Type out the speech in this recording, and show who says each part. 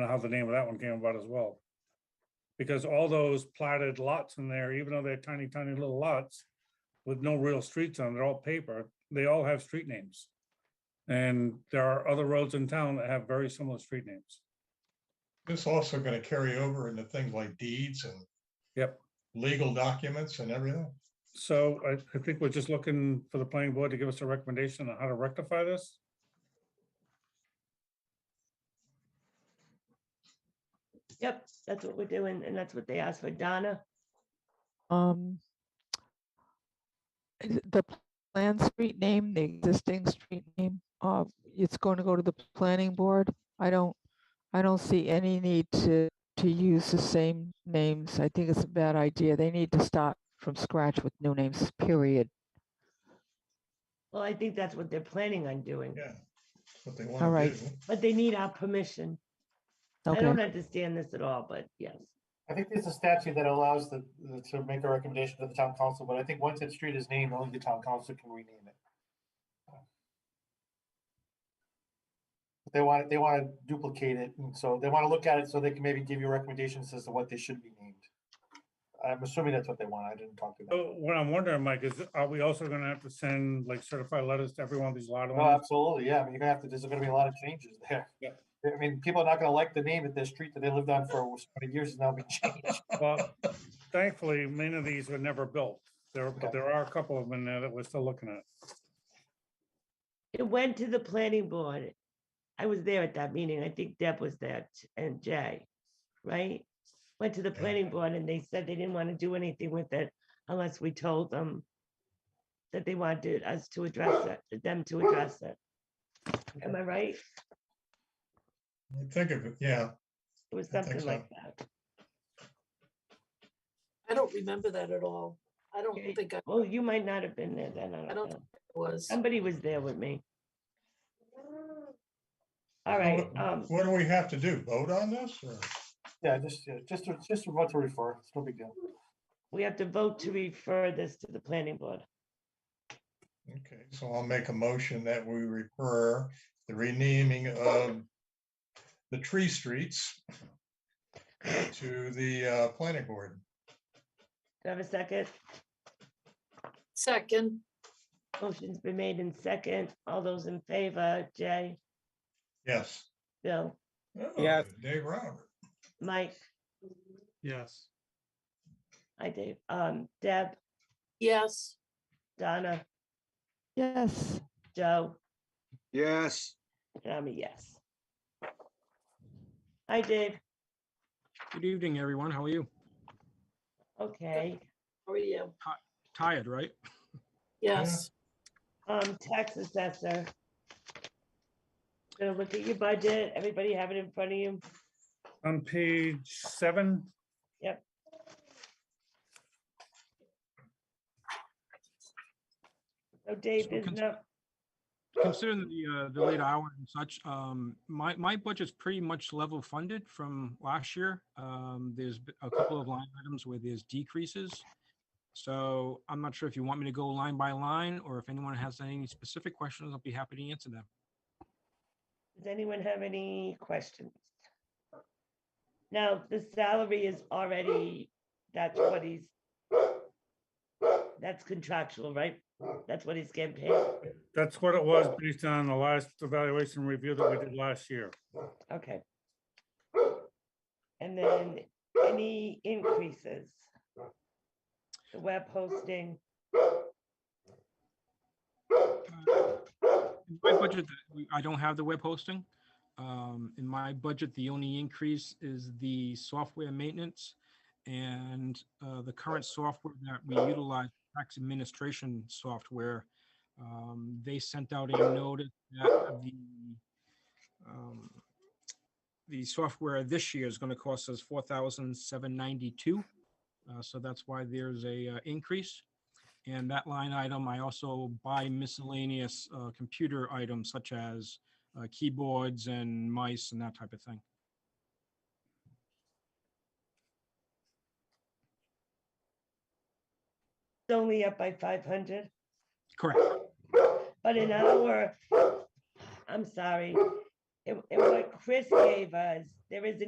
Speaker 1: know how the name of that one came about as well. Because all those platted lots in there, even though they're tiny, tiny little lots with no real streets on, they're all paper, they all have street names. And there are other roads in town that have very similar street names.
Speaker 2: This also gonna carry over into things like deeds and.
Speaker 1: Yep.
Speaker 2: Legal documents and everything.
Speaker 1: So I, I think we're just looking for the planning board to give us a recommendation on how to rectify this.
Speaker 3: Yep, that's what we're doing, and that's what they asked for. Donna,
Speaker 4: Um, is it the p- planned street name, the existing street name, uh, it's going to go to the planning board? I don't, I don't see any need to, to use the same names. I think it's a bad idea. They need to start from scratch with new names, period.
Speaker 3: well, I think that's what they're planning on doing,
Speaker 2: Yeah. What they
Speaker 4: All
Speaker 2: wanna
Speaker 4: right.
Speaker 2: do.
Speaker 3: but they need our permission. I
Speaker 4: Okay,
Speaker 3: don't understand this at all, but yes.
Speaker 5: I think there's a statute that allows the, the- to make a recommendation to the town council, but I think once that street is named, only the town council can rename it. They want, they want to duplicate it, and so they want to look at it so they can maybe give you recommendations as to what they should be named. I'm assuming that's what they want. I didn't talk to them.
Speaker 1: So what I'm wondering, Mike, is are we also gonna have to send like certified letters to every one of these lot
Speaker 5: No,
Speaker 1: owners?
Speaker 5: Oh, absolutely, yeah, I mean, you're gonna have to, there's gonna be a lot of changes there.
Speaker 1: um, Yeah.
Speaker 5: I mean, people are not gonna like the name of the street that they lived on for so many years and now be changed.
Speaker 1: Well, thankfully, many of these were never built. There, but there are a couple of them in there that we're still looking at.
Speaker 3: It went to the planning board. I was there at that meeting. I think Deb was there t- and Jay, right? Went to the
Speaker 2: Yeah.
Speaker 3: planning board and they said they didn't want to do anything with it unless we told them that they wanted us to address it, them to address it. Am I right?
Speaker 2: I Think of it, yeah.
Speaker 3: It was
Speaker 2: I think
Speaker 3: something
Speaker 2: so.
Speaker 3: like that.
Speaker 6: I don't remember that at all. I don't
Speaker 3: Okay.
Speaker 6: think I
Speaker 3: Well, you might not have been there then. I
Speaker 6: I
Speaker 3: don't
Speaker 6: don't
Speaker 3: know.
Speaker 6: was.
Speaker 3: Somebody was there with me. All right,
Speaker 2: What-
Speaker 3: um,
Speaker 2: What do we have to do? Vote on this or?
Speaker 5: Yeah, just, yeah, just, to- just what to refer, it's no big deal.
Speaker 3: we have to vote to refer this to the planning board.
Speaker 2: Okay, so I'll make a motion that we refer the renaming of the tree streets to the uh, planning board.
Speaker 3: Do I have a second?
Speaker 6: Second,
Speaker 3: Motion's been made in second. All those in favor, Jay,
Speaker 2: Yes.
Speaker 3: Bill,
Speaker 2: Yes. Dave Robert.
Speaker 3: Mike,
Speaker 7: Yes.
Speaker 3: I Dave, um, Deb,
Speaker 6: yes,
Speaker 3: Donna,
Speaker 4: yes.
Speaker 3: Joe,
Speaker 8: Yes,
Speaker 3: and I'm a yes. Hi, Dave.
Speaker 7: Good evening, everyone. How are you?
Speaker 3: Okay,
Speaker 6: or you,
Speaker 7: Tired, right?
Speaker 6: yes.
Speaker 3: um, tax assessor. Gonna look at your budget. Everybody have it in front of you.
Speaker 1: On page seven,
Speaker 3: So Dave,
Speaker 7: So
Speaker 3: there's
Speaker 7: cons-
Speaker 3: no,
Speaker 7: Considering the, uh, the late hour and such, um, my, my budget's pretty much level funded from last year. Um, there's b- a couple of line items where there's decreases. So I'm not sure if you want me to go line by line or if anyone has any specific questions, I'll be happy to answer them.
Speaker 3: Does anyone have any questions? Now, the salary is already, that's what he's. That's contractual, right? That's what he's getting paid.
Speaker 1: that's what it was based on the last evaluation review that we did last year.
Speaker 3: Okay. And then any increases? The web hosting,
Speaker 7: Uh, in My budget, we- I don't have the web hosting. Um, in my budget, the only increase is the software maintenance and, uh, the current software that we utilize, tax administration software. Um, they sent out a notice that the, um, the software this year is going to cost us four thousand seven ninety-two. Uh, so that's why there's a, uh, increase. And that line item, I also buy miscellaneous uh, computer items such as uh, keyboards and mice and that type of thing.
Speaker 3: it's only up by five hundred,
Speaker 7: Correct.
Speaker 3: but in our, I'm sorry, and and what Chris gave us, there is a